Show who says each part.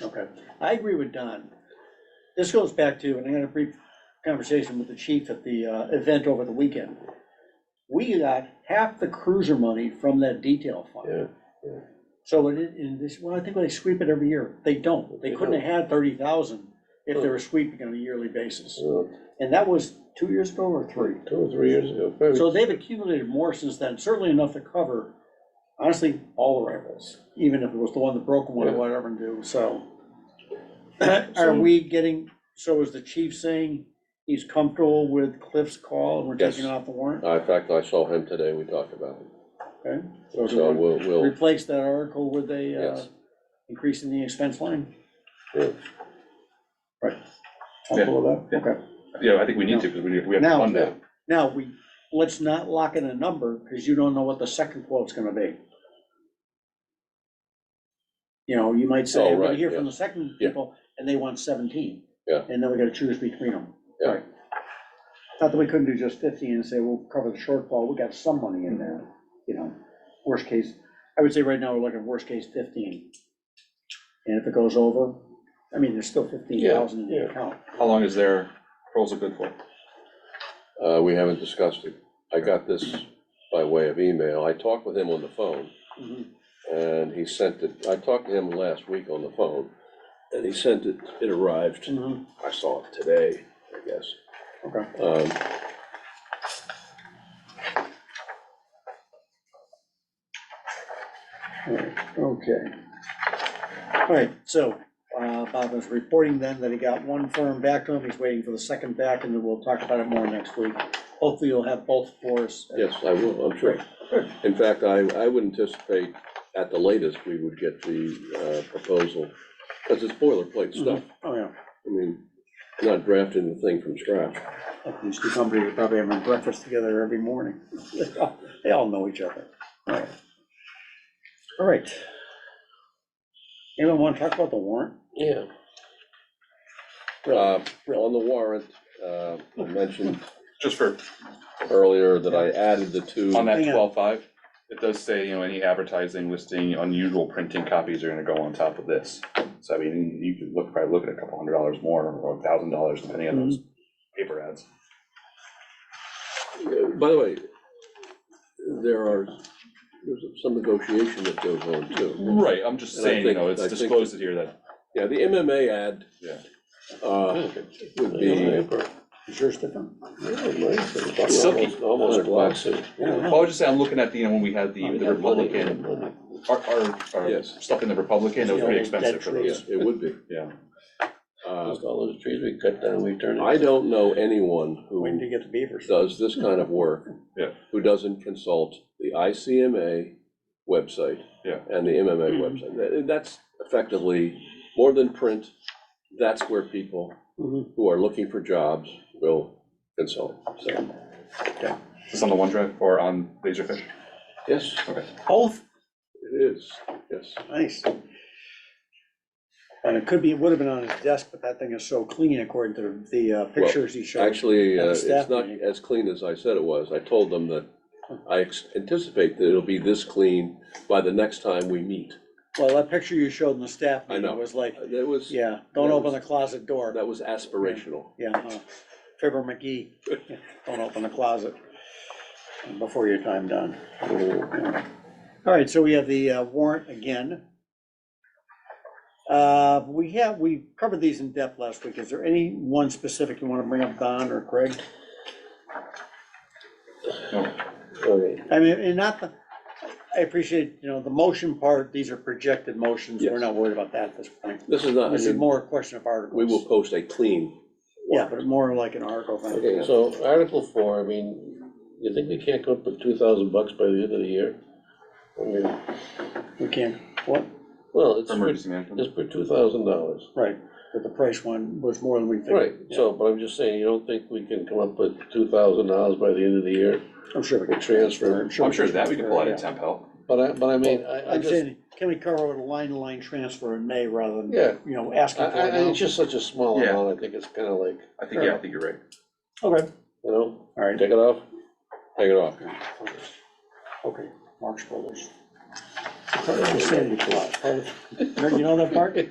Speaker 1: Okay, I agree with Don. This goes back to, and I had a brief conversation with the chief at the uh, event over the weekend. We got half the cruiser money from that detail
Speaker 2: Yeah,
Speaker 1: fund.
Speaker 2: yeah.
Speaker 1: So it, is- and this, well, I think they sweep it every year. They don't. They couldn't have had thirty thousand if they were sweeping on a yearly basis.
Speaker 2: so
Speaker 1: And that was two years ago or three?
Speaker 2: two or three years ago, maybe.
Speaker 1: So they've accumulated more since then, certainly enough to cover, honestly, all the rifles, even if it was the one that broke one or
Speaker 2: Yeah.
Speaker 1: whatever and do, so. Are we getting, so is the chief saying he's comfortable with Cliff's call and we're
Speaker 2: Yes.
Speaker 1: taking off the warrant?
Speaker 2: Uh, In fact, I saw him today, we talked about it,
Speaker 1: Okay,
Speaker 2: so
Speaker 1: so
Speaker 2: we'll,
Speaker 1: do we
Speaker 2: we'll,
Speaker 1: replace that article with a, uh,
Speaker 2: Yes.
Speaker 1: increase in the expense line?
Speaker 2: yeah.
Speaker 1: Comfortable with that?
Speaker 3: Yeah.
Speaker 1: Okay,
Speaker 3: Yeah, I think we need to, because we, we have to
Speaker 1: Now-
Speaker 3: fund that.
Speaker 1: now, we, let's not lock in a number, because you don't know what the second quote's gonna be. You know, you might
Speaker 2: Oh,
Speaker 1: say, I'm gonna
Speaker 2: right,
Speaker 1: hear from
Speaker 2: yeah.
Speaker 1: the second
Speaker 2: Yeah.
Speaker 1: people, and they want seventeen.
Speaker 2: Yeah.
Speaker 1: And then we gotta choose between them.
Speaker 2: Yeah.
Speaker 1: Right. Not that we couldn't do just fifteen and say, we'll cover the shortfall, we got some money in there,
Speaker 2: Mm-hmm.
Speaker 1: you know, worst case, I would say right now, we're looking at worst case fifteen. And if it goes over, I mean, there's still fifteen thousand in
Speaker 2: yeah.
Speaker 1: the account.
Speaker 3: How long is their proposal good for?
Speaker 2: Uh, we haven't discussed it. I got this by way of email. I talked with him on the phone, Mm-hmm.
Speaker 1: Mhm.
Speaker 2: and he sent it, I talked to him last week on the phone, and he sent it, it arrived,
Speaker 1: Mhm.
Speaker 2: I saw it today, I guess.
Speaker 1: Okay.
Speaker 2: Um,
Speaker 1: Alright, Okay. All right, so uh, Bob is reporting then that he got one firm back to him, he's waiting for the second back, and then we'll talk about it more next week. Hopefully you'll have both for us.
Speaker 2: Yes, I will, I'm sure. In fact, I, I would anticipate at the latest, we would get the uh, proposal, because it's boilerplate stuff.
Speaker 1: Oh, yeah,
Speaker 2: I mean, not drafting the thing from scratch.
Speaker 1: Like these two companies are probably having breakfast together every morning. They all know each other. All right. All right. Anyone want to talk about the warrant?
Speaker 2: Yeah.
Speaker 1: Uh,
Speaker 2: Uh, On the warrant, uh, I mentioned
Speaker 3: Just for,
Speaker 2: earlier that I added the two.
Speaker 3: on that
Speaker 1: Hang on.
Speaker 3: twelve-five, it does say, you know, any advertising listing, unusual printing copies are gonna go on top of this. So I mean, you could look, probably look at a couple hundred dollars more, or a thousand dollars, depending on those
Speaker 2: Mm-hmm.
Speaker 3: paper ads.
Speaker 2: By the way, there are, there's some negotiation that goes on too.
Speaker 3: Right, I'm just
Speaker 2: And I
Speaker 3: saying, you
Speaker 2: think-
Speaker 3: know, it's
Speaker 2: I think-
Speaker 3: disclosed it here that,
Speaker 2: Yeah, the MMA ad
Speaker 3: yeah.
Speaker 2: uh, would be.
Speaker 1: Is yours different?
Speaker 3: Silky.
Speaker 2: Almost glossy.
Speaker 3: Well, I was just saying, I'm looking at the, you know, when we had
Speaker 2: Oh,
Speaker 3: the the Republican, our, our, our
Speaker 2: Yes.
Speaker 3: stuff in the Republican, it was pretty
Speaker 1: Yeah, that
Speaker 3: expensive for
Speaker 1: tree.
Speaker 2: Yeah,
Speaker 3: those,
Speaker 2: it would be.
Speaker 3: yeah.
Speaker 2: Uh,
Speaker 4: all those trees we cut down, we turned.
Speaker 2: I don't know anyone
Speaker 1: When do
Speaker 2: who
Speaker 1: you get the beavers?
Speaker 2: does this kind of work.
Speaker 3: Yeah.
Speaker 2: Who doesn't consult the ICMA website.
Speaker 3: Yeah.
Speaker 2: And the
Speaker 1: Mm-hmm.
Speaker 2: MMA website. That- That's effectively, more than print, that's where people
Speaker 1: Mhm.
Speaker 2: who are looking for jobs will consult. So,
Speaker 3: Is this on the OneDrive or on Laserfish?
Speaker 2: yes,
Speaker 3: Okay.
Speaker 1: Both?
Speaker 2: it is, yes.
Speaker 1: Nice. And it could be, it would have been on his desk, but that thing is so clean according to the uh, pictures he showed.
Speaker 2: Actually,
Speaker 1: At the
Speaker 2: uh,
Speaker 1: staff
Speaker 2: it's not
Speaker 1: meeting.
Speaker 2: as clean as I said it was. I told them that I ex- anticipate that it'll be this clean by the next time we meet.
Speaker 1: Well, that picture you showed in the staff
Speaker 2: I
Speaker 1: meeting
Speaker 2: know.
Speaker 1: was like,
Speaker 2: That was,
Speaker 1: yeah, don't
Speaker 2: That
Speaker 1: open the
Speaker 2: was-
Speaker 1: closet door.
Speaker 2: that was aspirational.
Speaker 1: Yeah, uh, Fibber McGee, don't open the closet before your time done.
Speaker 2: Oh.
Speaker 1: All right, so we have the uh, warrant again. Uh, We have, we covered these in depth last week. Is there any one specific you want to bring up, Don or Craig?
Speaker 4: Okay.
Speaker 1: I mean, and not the, I appreciate, you know, the motion part, these are projected motions, we're
Speaker 2: Yes.
Speaker 1: not worried about that at this point.
Speaker 2: This is not, I
Speaker 1: This is
Speaker 2: mean,
Speaker 1: more a question of articles.
Speaker 2: we will post a clean.
Speaker 1: Yeah, but more like an article thing.
Speaker 4: Okay, so Article four, I mean, you think we can't come up with two thousand bucks by the end of the year? I mean,
Speaker 1: We can't, what,
Speaker 4: well, it's
Speaker 3: For
Speaker 4: for,
Speaker 3: emergency management?
Speaker 4: it's for two thousand dollars.
Speaker 1: right, but the price one was more than we figured.
Speaker 4: Right, so, but I'm just saying, you don't think we can come up with two thousand dollars by the end of the year
Speaker 1: I'm sure we
Speaker 4: for
Speaker 1: can.
Speaker 4: transfer?
Speaker 3: I'm sure that we can pull out
Speaker 1: yeah.
Speaker 3: of temp help.
Speaker 4: But I, but I mean, I, I
Speaker 1: I'm
Speaker 4: just,
Speaker 1: saying, can we cover a line-to-line transfer in May rather than,
Speaker 4: Yeah.
Speaker 1: you know,
Speaker 4: I,
Speaker 1: asking for
Speaker 4: I,
Speaker 1: it
Speaker 4: I-
Speaker 1: now?
Speaker 4: it's just such a small
Speaker 3: Yeah.
Speaker 4: amount, I think it's kinda like,
Speaker 3: I think, yeah, I think you're right.
Speaker 1: Okay,
Speaker 4: you know,
Speaker 1: all right,
Speaker 4: take it off,
Speaker 2: Hang it off.
Speaker 1: okay, Marx Brothers. Part of the Sandy Clause, part of- You know that part?